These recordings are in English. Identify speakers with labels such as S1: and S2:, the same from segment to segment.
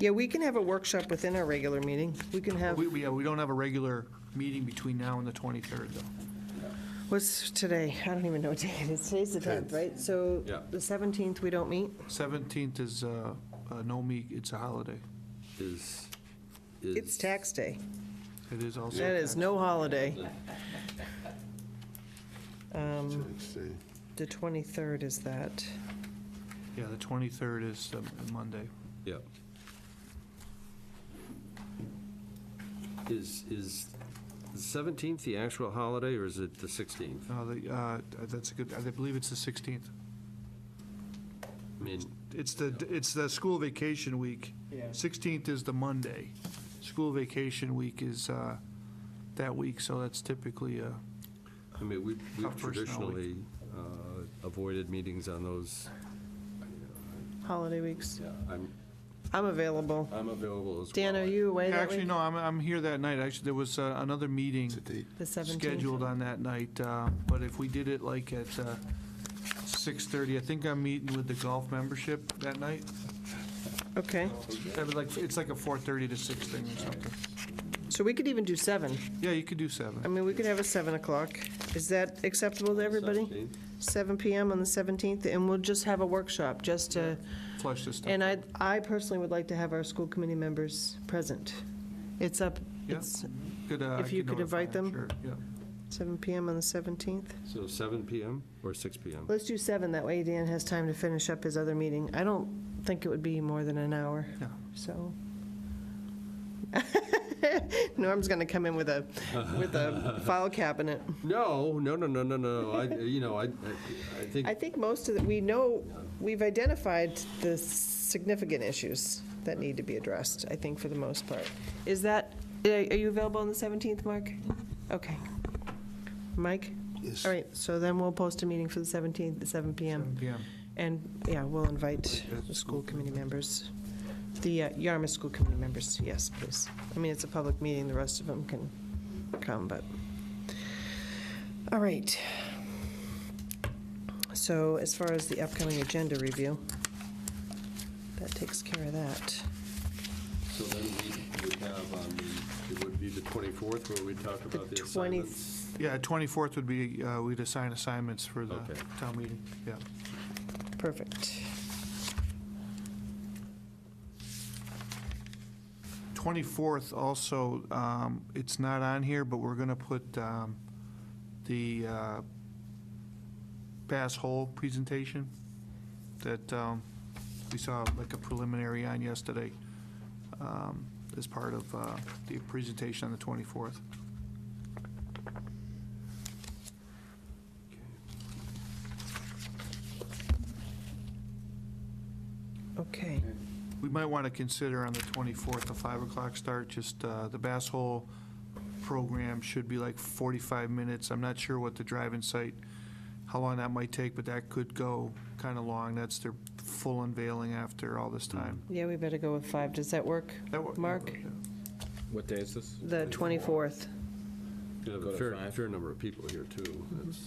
S1: Yeah, we can have a workshop within our regular meeting. We can have,
S2: We, we, yeah, we don't have a regular meeting between now and the 23rd, though.
S1: what's today? I don't even know what day it is. Today's the 10th, right? So
S3: Yeah.
S1: the 17th, we don't meet?
S2: 17th is, uh, uh, no meet, it's a holiday.
S3: Is, is.
S1: It's tax day.
S2: It is also.
S1: That is no holiday. Um,
S4: Let's see.
S1: The 23rd is that.
S2: Yeah, the 23rd is um, Monday.
S3: Yeah. Is, is the 17th the actual holiday, or is it the 16th?
S2: No, the, uh, that's a good, I believe it's the 16th.
S3: I mean,
S2: It's the, it's the school vacation week.
S1: Yeah.
S2: 16th is the Monday. School vacation week is uh, that week, so that's typically, uh,
S3: I mean, we- we've
S2: Tough personnel
S3: traditionally
S2: week.
S3: uh, avoided meetings on those. uh,
S1: Holiday weeks.
S3: Yeah, I'm,
S1: I'm available.
S3: I'm available as well.
S1: Dan, are you away that
S2: actually,
S1: week?
S2: no, I'm, I'm here that night. Actually, there was uh, another meeting
S4: It's a date.
S1: The 17th?
S2: scheduled on that night, uh, but if we did it like at uh, 6:30, I think I'm meeting with the golf membership that night.
S1: Okay.
S2: That'd be like- It's like a 4:30 to 6 thing or something.
S1: So we could even do 7.
S2: Yeah, you could do
S1: I
S2: 7.
S1: mean, we could have a 7 o'clock. Is that acceptable to everybody?
S3: 17th?
S1: 7 PM on the 17th, and we'll just have a workshop, just to,
S2: Flush this stuff.
S1: and I, I personally would like to have our school committee members present. It's up,
S2: Yeah.
S1: it's
S2: Could, uh, I
S1: if you could
S2: notify
S1: invite
S2: them,
S1: them.
S2: Sure, yeah.
S1: seven PM on the 17th.
S3: So 7 PM or 6 PM?
S1: Let's do 7, that way Dan has time to finish up his other meeting. I don't think it would be more than an hour,
S2: Yeah.
S1: so. Norm's gonna come in with a, with a file cabinet.
S3: No, no, no, no, no, no, I, you know, I, I- I think.
S1: I think most of the, we know, we've identified the significant issues that need to be addressed, I think, for the most part. Is that, uh, are you available on the 17th, Mark? Okay. Mike?
S4: Yes.
S1: All right, so then we'll post a meeting for the 17th at 7 PM.
S2: 7 PM.
S1: And, yeah, we'll invite the school committee members, the uh, Yarmouth School Committee members, yes, please. I mean, it's a public meeting, the rest of them can come, but, all right. So as far as the upcoming agenda review, that takes care of that.
S3: So then we would have, on the it would be the 24th where we talk
S1: The
S3: about the
S1: 20,
S3: assignments.
S2: Yeah, 24th would be, uh, we'd assign assignments for the
S3: Okay.
S2: town meeting, yeah.
S1: perfect.
S2: 24th also, um, it's not on here, but we're going to put um, the uh, Bass Hole presentation that um, we saw like a preliminary on yesterday um, as part of uh, the presentation on the 24th.
S1: Okay,
S2: We might want to consider on the 24th, a 5 o'clock start, just uh, the Bass Hole program should be like 45 minutes. I'm not sure what the drive-in site, how long that might take, but that could go kind of long. That's their full unveiling after all this time.
S1: yeah, we better go with five. Does that work,
S2: That wa-
S1: Mark?
S5: What day is this?
S1: The 24th.
S3: You have
S5: Go
S3: a
S5: to
S3: fair,
S5: five.
S3: fair number of people here, too. That's most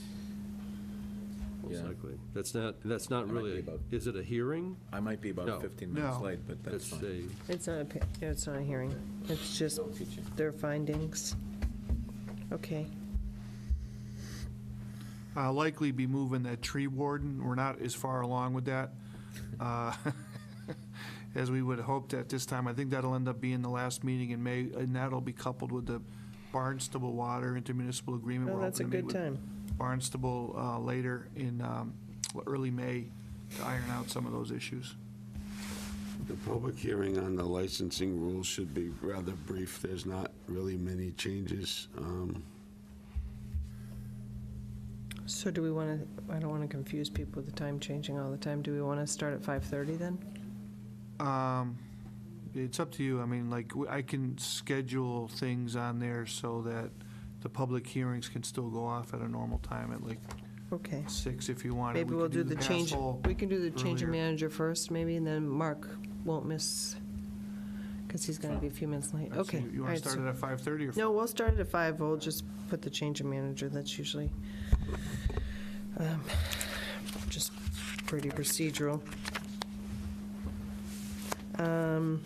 S5: Mm-hmm. Yeah.
S3: likely. That's not, that's not
S5: That might
S3: really,
S5: be about-
S3: is it a hearing?
S5: I might be
S3: No.
S5: about 15 minutes
S2: No.
S5: late, but that's
S3: It's
S5: fine.
S3: a,
S1: It's not, a pa- yeah, it's not a hearing. It's just their findings. Okay,
S2: Uh, Likely be moving that tree warden. We're not as far along with that uh, as we would have hoped at this time. I think that'll end up being the last meeting in May, and that'll be coupled with the Barnstable Water Intermunicipal Agreement.
S1: well,
S2: We're
S1: Oh, that's a
S2: hoping to meet
S1: good
S2: with
S1: time.
S2: Barnstable uh, later in um, early May to iron out some of those issues.
S4: The public hearing on the licensing rules should be rather brief. There's not really many changes. Um,
S1: So do we want to, I don't want to confuse people with the time changing all the time. Do we want to start at 5:30 then?
S2: Um, It's up to you. I mean, like, w- I can schedule things on there so that the public hearings can still go off at a normal time at like
S1: Okay.
S2: six if you want.
S1: Maybe
S2: We
S1: we'll
S2: could
S1: do the
S2: pass
S1: change,
S2: poll.
S1: we can do the change of
S2: earlier.
S1: manager first, maybe, and then Mark won't miss, because he's going to be a few minutes late.
S2: So
S1: Okay.
S2: You
S1: all
S2: want
S1: right,
S2: to
S1: so-
S2: start it at 5:30 or?
S1: No, we'll start it at five, we'll just put the change of manager, that's usually um, just pretty procedural. Um,